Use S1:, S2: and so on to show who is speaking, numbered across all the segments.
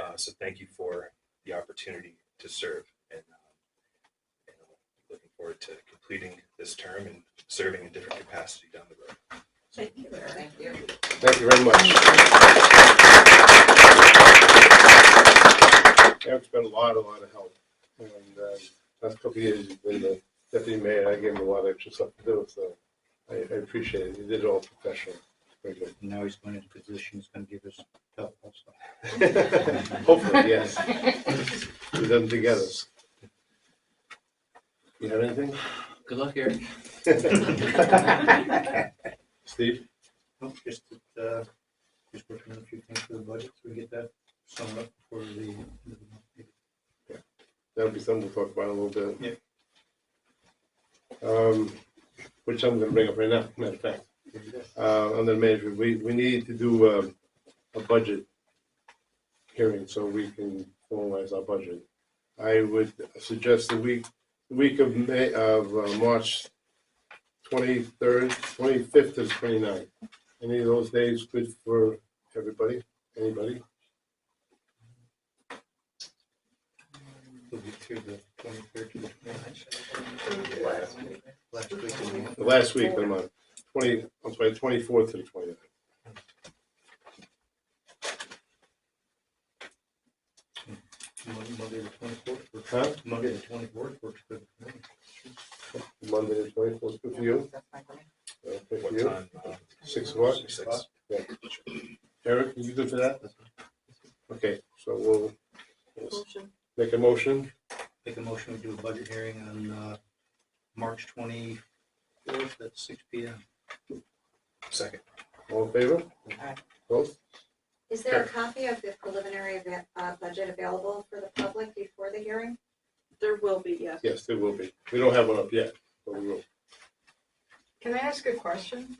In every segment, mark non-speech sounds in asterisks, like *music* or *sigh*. S1: Uh, so thank you for the opportunity to serve and, um, and I'm looking forward to completing this term and serving in different capacity down the road.
S2: Thank you, Eric.
S3: Thank you.
S4: Thank you very much. Eric's been a lot, a lot of help. And uh, last couple of years, he's been the deputy mayor. I gave him a lot of extra stuff to do, so I, I appreciate it. He did it all professionally. Very good.
S5: Now he's going into position, he's going to give us help also.
S4: *laughs* Hopefully, yes. We've done together. You have anything?
S5: Good luck, Eric.
S4: *laughs* Steve?
S5: Well, Just, that, uh, just working on a few things for the budget, so we get that summed up for the end of the month. maybe.
S4: That'll be something we'll talk about in a little bit.
S5: Yep.
S4: Um, which I'm gonna bring up right now, matter of fact.
S5: There you go.
S4: uh, under management, we, we need to do um, a budget hearing so we can formalize our budget. I would suggest the week, the week of May, of uh, March twenty-third, twenty-fifth to 29th. Any of those days good for everybody, anybody?
S5: We'll be through the twenty-third to the twenty-ninth,
S2: Last week.
S5: last week of the month.
S4: The last week of the month, twenty, I'm sorry, twenty-fourth to the 29th.
S5: Mon- Monday the twenty-fourth, works-
S4: Huh?
S5: Monday the twenty-fourth works good. for me.
S4: Monday, the twenty-fourth, good for you?
S3: That's my plan.
S4: Uh, Good for
S1: What
S4: you?
S1: time? uh,
S4: Six o'clock?
S1: Six.
S4: Eric, you good for that? Okay, so we'll we'll
S2: Motion.
S4: make a motion.
S5: Make a motion, we do a budget hearing on, uh, March twenty-fourth at six P M.
S1: Second.
S4: All in favor?
S3: Aye.
S4: Both?
S6: Is there a copy of the preliminary eva- uh, budget available for the public before the hearing?
S2: There will be, yes.
S4: Yes, there will be. We don't have one up yet, but we will.
S7: Can I ask a question?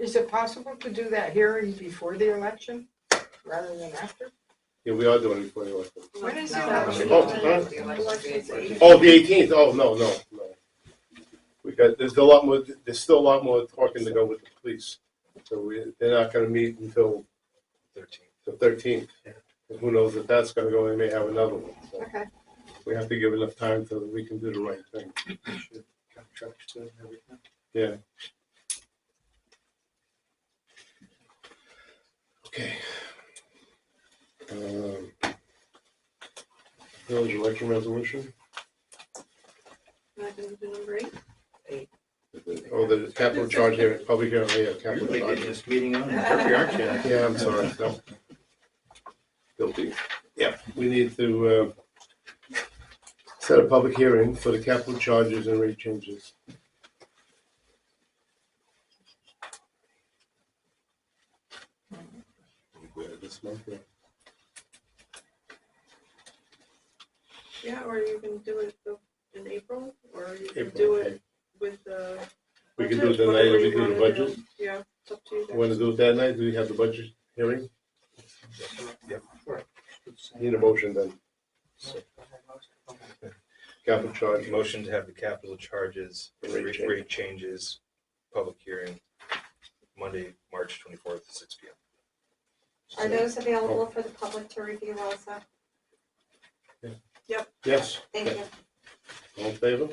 S7: Is it possible to do that hearing before the election rather than after?
S4: Yeah, we are doing it before the election.
S7: When is
S2: Um,
S7: the
S3: No.
S7: election?
S4: Oh, huh?
S3: The election's the 18th.
S4: Oh, the eighteenth, oh, no, no, no. We got, there's a lot more, there's still a lot more talking to go with the police. So we, they're not gonna meet until
S1: Thirteen.
S4: the thirteenth. Who knows if that's gonna go, they may have another one. So
S7: Okay,
S4: we have to give enough time so that we can do the right thing.
S5: Should Contracts good and everything.
S4: Yeah. Okay. Um, Village election resolution,
S2: Not gonna do number eight.
S4: oh, the capital charge here, public hearing, yeah,
S5: You
S4: capital
S5: really did
S4: charge.
S5: this meeting on.
S4: Yeah, I'm sorry, no. Guilty. Yeah, we need to, uh, set a public hearing for the capital charges and rate changes. Yeah, this month, yeah.
S2: Yeah, or you can do it the- in April, or you can
S4: April,
S2: do
S4: okay.
S2: it with the.
S4: We can do it
S2: budget,
S4: the night
S2: whatever
S4: we
S2: you
S4: do the
S2: wanna do.
S4: budget.
S2: Yeah, it's up to you
S4: Want
S2: guys.
S4: to do it that night? Do we have the budget hearing?
S1: Yep.
S4: *laughs* Need a motion then.
S3: Okay.
S4: Capital charge, motion.
S1: Motion to have the capital charges,
S4: Rate
S1: rate
S4: change.
S1: rate changes, public hearing, Monday, March twenty-fourth, six P M.
S6: Are those available for the public to review also?
S4: Yes,
S6: Thank you.
S4: all in favor?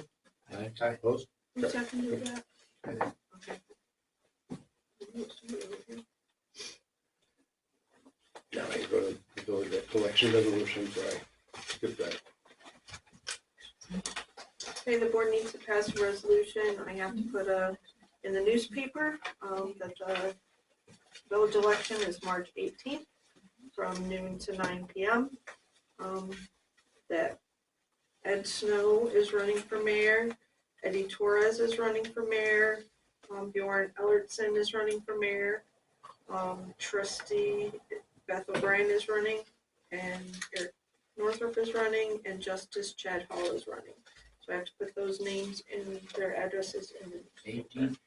S5: Aye.
S4: Opposed?
S2: Who seconded that? Okay.
S4: Now I go to the village election resolution, sorry. Skip that.
S2: Okay, the board needs to pass a resolution. I have to put a, in the newspaper, um, that the village election is March eighteenth from noon to nine PM. Um, that Ed Snow is running for mayor, Eddie Torres is running for mayor, um, Bjorn Ellertson is running for mayor, um, trustee Beth O'Brien is running, and Eric Northrup is running, and Justice Chad Hall is running. So I have to put those names and their addresses in. the-
S5: Eighteen.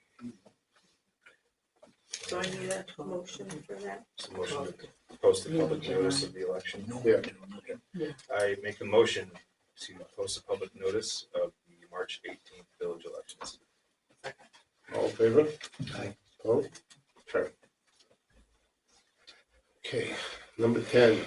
S2: So I need a motion for that.
S1: So motion to post the public notice of the election.
S4: Yeah.
S1: I make a motion to post a public notice of the March eighteenth village elections.
S4: All in favor?
S5: Aye.
S4: Opposed? Sure. Okay, number ten,